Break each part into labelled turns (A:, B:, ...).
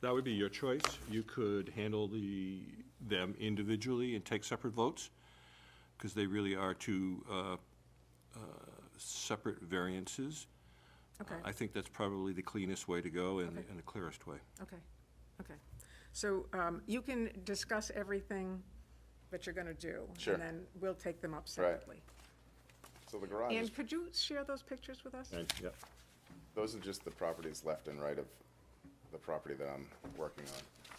A: That would be your choice. You could handle the, them individually and take separate votes, because they really are two uh, uh, separate variances.
B: Okay,
C: Uh,
A: I think that's probably the cleanest way to go and
B: Okay.
A: and the clearest way.
B: okay, okay. So um, you can discuss everything that you're going to do.
C: Sure.
B: And then we'll take them up separately.
C: So the garage, is-
B: And could you share those pictures with us?
A: yeah.
C: those are just the properties left and right of the property that I'm working on.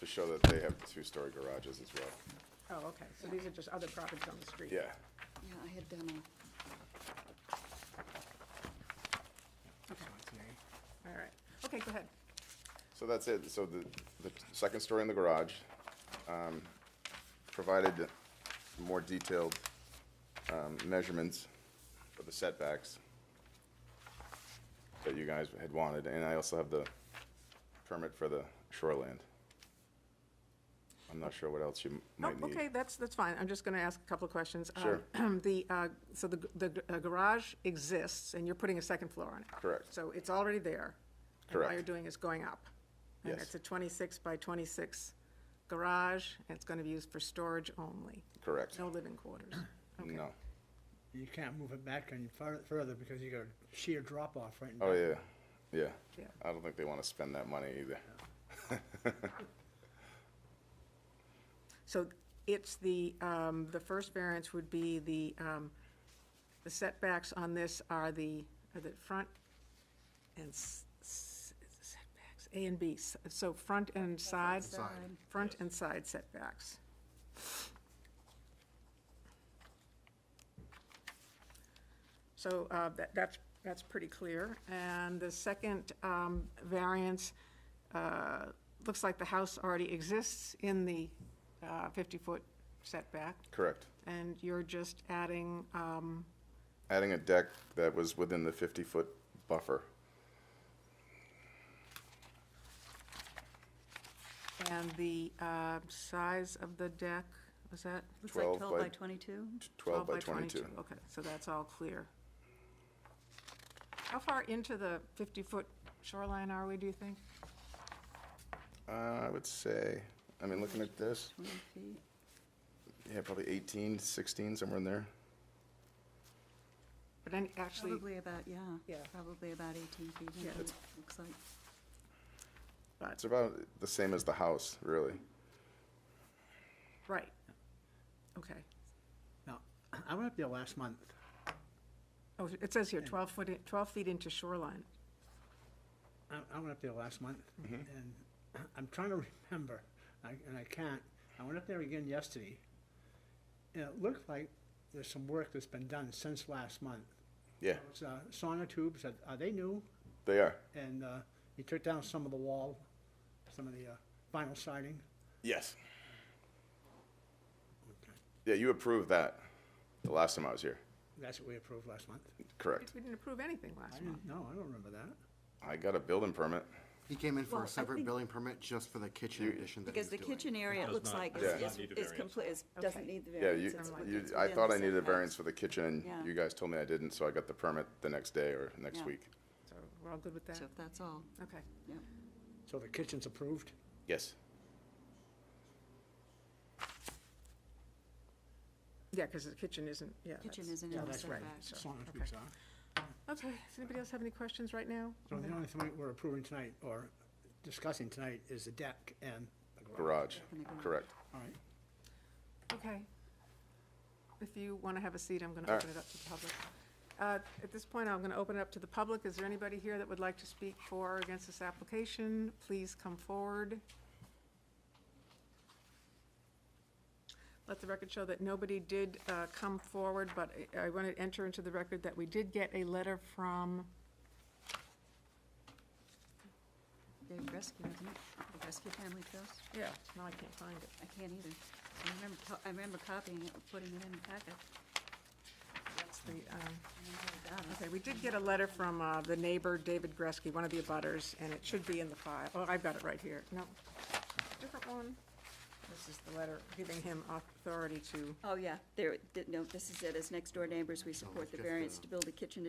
C: To show that they have two-story garages as well.
B: Oh, okay, so these are just other properties on the street?
C: Yeah,
D: Yeah, I had done a,
B: Okay. All right, okay, go ahead.
C: so that's it. So the, the second story in the garage, um, provided more detailed, um, measurements for the setbacks that you guys had wanted, and I also have the permit for the shoreland. I'm not sure what else you m-
B: Oh,
C: might need.
B: okay, that's, that's fine. I'm just going to ask a couple of questions. Uh,
C: Sure.
B: The, uh, so the g- the g- uh, garage exists, and you're putting a second floor on it?
C: Correct.
B: So it's already there? And all
C: Correct.
B: you're doing is going up? And
C: Yes.
B: it's a 26 by 26 garage, and it's going to be used for storage only?
C: Correct.
B: No living quarters? Okay.
C: No.
E: You can't move it back any fur- further because you got a sheer drop off right in
C: Oh,
E: back.
C: yeah, yeah.
B: Yeah.
C: I don't think they want to spend that money either.
B: So it's the, um, the first variance would be the, um, the setbacks on this are the, are the front and s- s- setbacks, A and B, S- so front and side?
D: Side.
B: Front and side setbacks. So uh, that, that's, that's pretty clear. And the second um, variance, uh, looks like the house already exists in the 50-foot setback,
C: Correct.
B: and you're just adding, um,
C: Adding a deck that was within the 50-foot buffer.
B: and the uh, size of the deck, was that?
D: looks like
C: 12
D: 12 by
C: by-
D: 22.
C: 12 by 22.
B: Okay, so that's all clear. How far into the 50-foot shoreline are we, do you think?
C: Uh, I would say, I mean, looking at this,
D: 20 feet.
C: yeah, probably 18, 16, somewhere in there.
B: But any, actually,
D: Probably about, yeah.
B: Yeah.
D: Probably about 18 feet, in
B: Yeah.
D: it looks like.
B: but,
C: It's about the same as the house, really.
B: right. Okay.
E: Now, I went up there last month.
B: Oh, it says here 12 foot, in- 12 feet into shoreline.
E: I, I went up there last month and I'm trying to remember, I, and I can't. I went up there again yesterday. And it looked like there's some work that's been done since last month.
C: Yeah,
E: It's, uh, sauna tubes, are, are they new?
C: they are.
E: And, uh, he took down some of the wall, some of the, uh, vinyl siding.
C: Yes. Yeah, you approved that the last time I was here.
E: That's what we approved last month.
C: Correct.
B: We didn't approve anything
E: I
B: last month.
E: didn't, no, I don't remember that.
C: I got a building permit.
F: He came in for
D: Well, I
F: a separate
D: think-
F: building permit just for the kitchen addition that he
D: Because the
F: was doing.
D: kitchen area, it
A: does
D: looks
A: not-
D: like
A: it
C: does
D: is,
C: not
D: is-
A: need a
D: is
A: variance.
D: complete, is-
B: Okay.
D: doesn't need the
C: Yeah, you,
D: variance. It's wi-
C: you,
D: it's
C: I
D: within
C: thought
D: the
C: I needed a
D: setbacks.
C: variance for the kitchen,
D: Yeah.
C: and you guys told me I didn't, so I got the permit the next day or next
D: Yeah.
C: week.
B: So we're all good with that?
D: So if that's all,
B: Okay.
D: yeah.
E: So the kitchen's approved?
C: Yes.
B: Yeah, because the kitchen isn't, yeah.
D: Kitchen
B: that's-
D: isn't
E: Yeah,
D: in the
E: that's
B: right.
D: setbacks.
B: Sure.
E: Sauna
B: Okay.
E: tubes are.
B: Okay, does anybody else have any questions right now?
E: So the only thing we're approving tonight, or discussing tonight, is the deck and the garage.
C: Garage,
D: In the garage.
C: correct.
E: All right.
B: Okay. If you want to have a seat, I'm going to
C: All right.
B: open it up to the public. Uh, At this point, I'm going to open it up to the public. Is there anybody here that would like to speak for or against this application? Please come forward. Let the record show that nobody did uh, come forward, but I- I want to enter into the record that we did get a letter from,
D: Dave Rescue, isn't it? The Rescue Family Trust?
B: yeah, now I can't find it.
D: I can't either. I remember, co- I remember copying it, putting it in the packet.
B: That's the, um,
D: I don't know what about it.
B: Okay, we did get a letter from uh, the neighbor, David Gresky, one of the abutters, and it should be in the file. Oh, I've got it right here. No, different one. This is the letter giving him authority to
D: Oh, yeah, there, it did- no, this is it, as next door neighbors, we support the
F: just a-
D: variance to build a kitchen